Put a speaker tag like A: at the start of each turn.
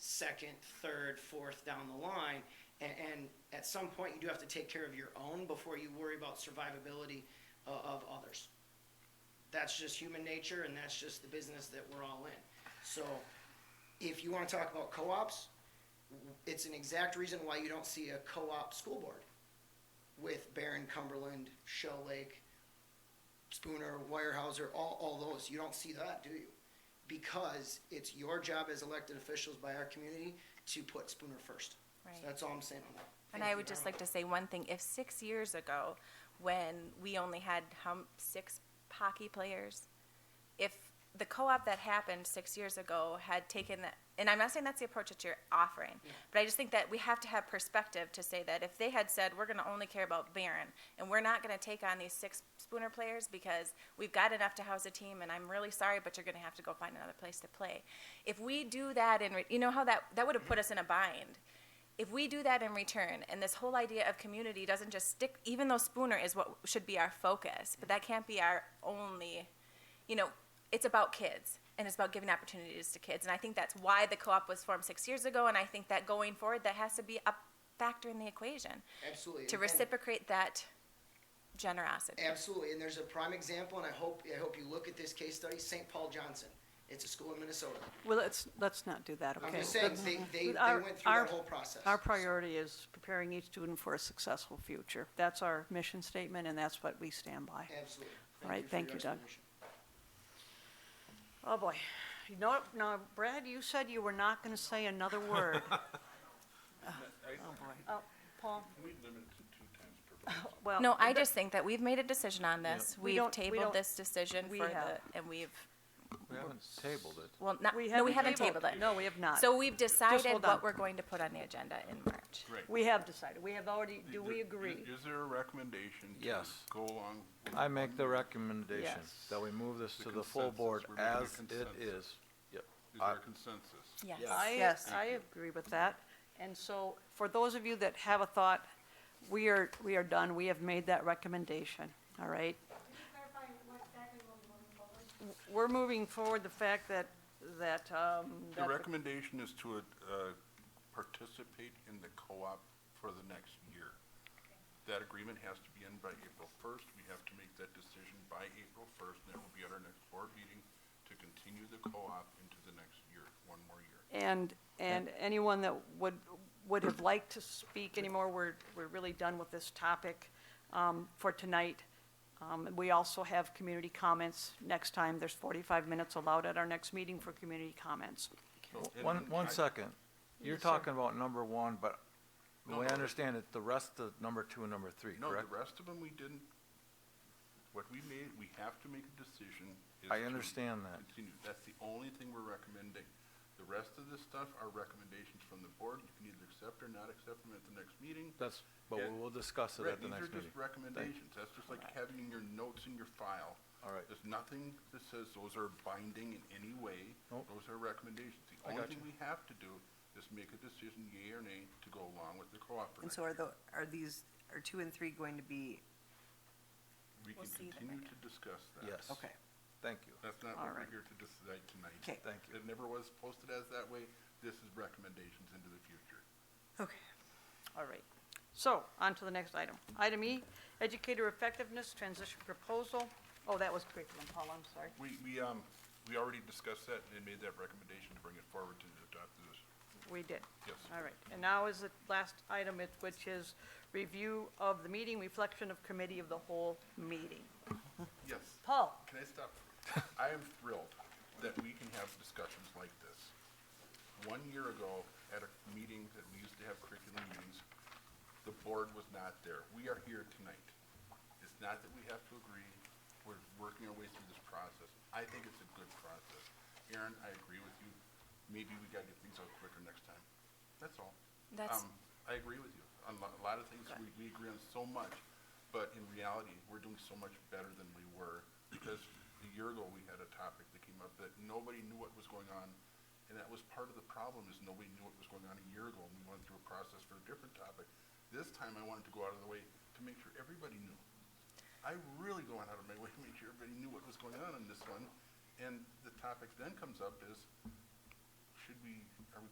A: second, third, fourth down the line. And, and at some point, you do have to take care of your own before you worry about survivability uh, of others. That's just human nature, and that's just the business that we're all in. So, if you want to talk about co-ops, it's an exact reason why you don't see a co-op school board with Barron, Cumberland, Shell Lake, Spooner, Weyerhaeuser, all, all those. You don't see that, do you? Because it's your job as elected officials by our community to put Spooner first.
B: Right.
A: So that's all I'm saying on that.
B: And
A: Thank
B: I
A: you
B: would
A: very
B: just
A: much.
B: like to say one thing, if six years ago, when we only had how, m- six hockey players, if the co-op that happened six years ago had taken that, and I'm not saying that's the approach that you're offering, but I just think that we have to have perspective to say that if they had said, we're gonna only care about Barron, and we're not gonna take on these six Spooner players because we've got enough to house a team, and I'm really sorry, but you're gonna have to go find another place to play. If we do that and, re- you know how that, that would have put us in a bind if we do that in return and this whole idea of community doesn't just stick even though spooner is what should be our focus but that can't be our only you know it's about kids and it's about giving opportunities to kids and i think that's why the co-op was formed six years ago and i think that going forward that has to be a factor in the equation
A: Absolutely.
B: to
A: And-
B: reciprocate that generosity
A: Absolutely, and there's a prime example, and I hope, I hope you look at this case study, St. Paul Johnson. It's a school in Minnesota.
C: Well, let's, let's not do that, okay?
A: I'm just saying,
C: Let's-
A: they, they, they
C: our-
A: went through
C: our-
A: that whole process.
C: Our priority is preparing each student for a successful future. That's our mission statement, and that's what we stand by.
A: Absolutely.
C: All right,
A: for
C: thank
A: your
C: you, Doug.
A: explanation.
C: Oh, boy. No, no, Brad, you said you were not going to say another word. Oh, boy. Oh, Paul?
D: We limit it to two times per person.
C: Well,
B: no i just think that we've made a decision on this
C: We
B: we've
C: don't- we
B: tabled
C: don't-
B: this decision
C: we
B: for
C: have.
B: the and we've
E: We haven't tabled it.
B: well not no we haven't tabled, it
C: No, we have not.
B: so we've decided
C: hold on.
B: what we're going to put on the agenda in march
C: We have decided. We have already, do we
D: Is-
C: agree?
D: Is there a recommendation to
E: Yes.
D: go along? with
E: I make the recommendation
C: Yes.
E: that we move this
D: The
E: to the full
D: consensus.
E: board
D: We're making a
E: as it
D: consensus.
E: is. Yep.
D: Is
E: I-
D: there consensus?
B: Yes.
E: Yes.
C: I,
B: Yes.
C: I agree with that. And so, for those of you that have a thought, we are, we are done. We have made that recommendation, all right? We're moving forward the fact that, that, um, that-
D: The recommendation is to uh, participate in the co-op for the next year. That agreement has to be in by April 1st. We have to make that decision by April 1st, and that will be at our next board meeting to continue the co-op into the next year, one more year.
C: and, and anyone that would, would have liked to speak anymore, we're, we're really done with this topic, um, for tonight. Um, we also have community comments next time. There's forty-five minutes allowed at our next meeting for community comments.
D: So- and-
E: One,
D: and
E: one
D: I-
E: second. You're
C: Yes, sir.
E: talking about number one, but the
D: No,
E: way I
D: no.
E: understand it, the rest of number two and number three,
D: No,
E: correct?
D: the rest of them, we didn't, what we made, we have to make a decision. is
E: I
D: to
E: understand that.
D: Continue, that's the only thing we're recommending. The rest of this stuff are recommendations from the board, you can either accept or not accept them at the next meeting.
E: That's, but
D: Yeah.
E: we will discuss it
D: Right,
E: at
D: these
E: the
D: are
E: next meeting.
D: just recommendations, that's just like having your notes in your file.
E: All right.
D: There's nothing that says those are binding in any way,
E: Nope.
D: those are recommendations. The only
E: I got
D: thing
E: you.
D: we have to do is make a decision, yea or nay, to go along with the co-op. or
F: And
D: not.
F: so are the, are these, are two and three going to be,
D: We
B: We'll
D: can
B: see them
D: continue
B: again.
D: to discuss that.
E: Yes.
F: okay,
E: Thank you.
D: That's not
C: All
D: what
C: right.
D: we're here to decide tonight.
F: Okay.
E: Thank you.
D: It never was posted as that way. This is recommendations into the future.
F: okay.
C: All right. So, on to the next item. Item E, educator effectiveness transition proposal. Oh, that was curriculum, Paul, I'm sorry.
D: We, we, um, we already discussed that and made that recommendation to bring it forward to adopt this.
C: We did.
D: Yes.
C: All right. And now is the last item, it- which is review of the meeting, reflection of committee of the whole meeting.
D: Yes.
C: Paul?
D: Can I stop? I am thrilled that we can have discussions like this. One year ago, at a meeting that we used to have curriculum meetings, the board was not there. We are here tonight. It's not that we have to agree, we're working our way through this process. I think it's a good process. Aaron, I agree with you. Maybe we gotta get things out quicker next time. That's all.
B: That's-
D: Um, I agree with you. On lo- a lot of things, we, we agree on so much, but in reality, we're doing so much better than we were. Because a year ago, we had a topic that came up that nobody knew what was going on. And that was part of the problem is nobody knew what was going on a year ago and we went through a process for a different topic. This time I wanted to go out of the way to make sure everybody knew. I really going out of my way to make sure everybody knew what was going on in this one. And the topic then comes up is, should we, are we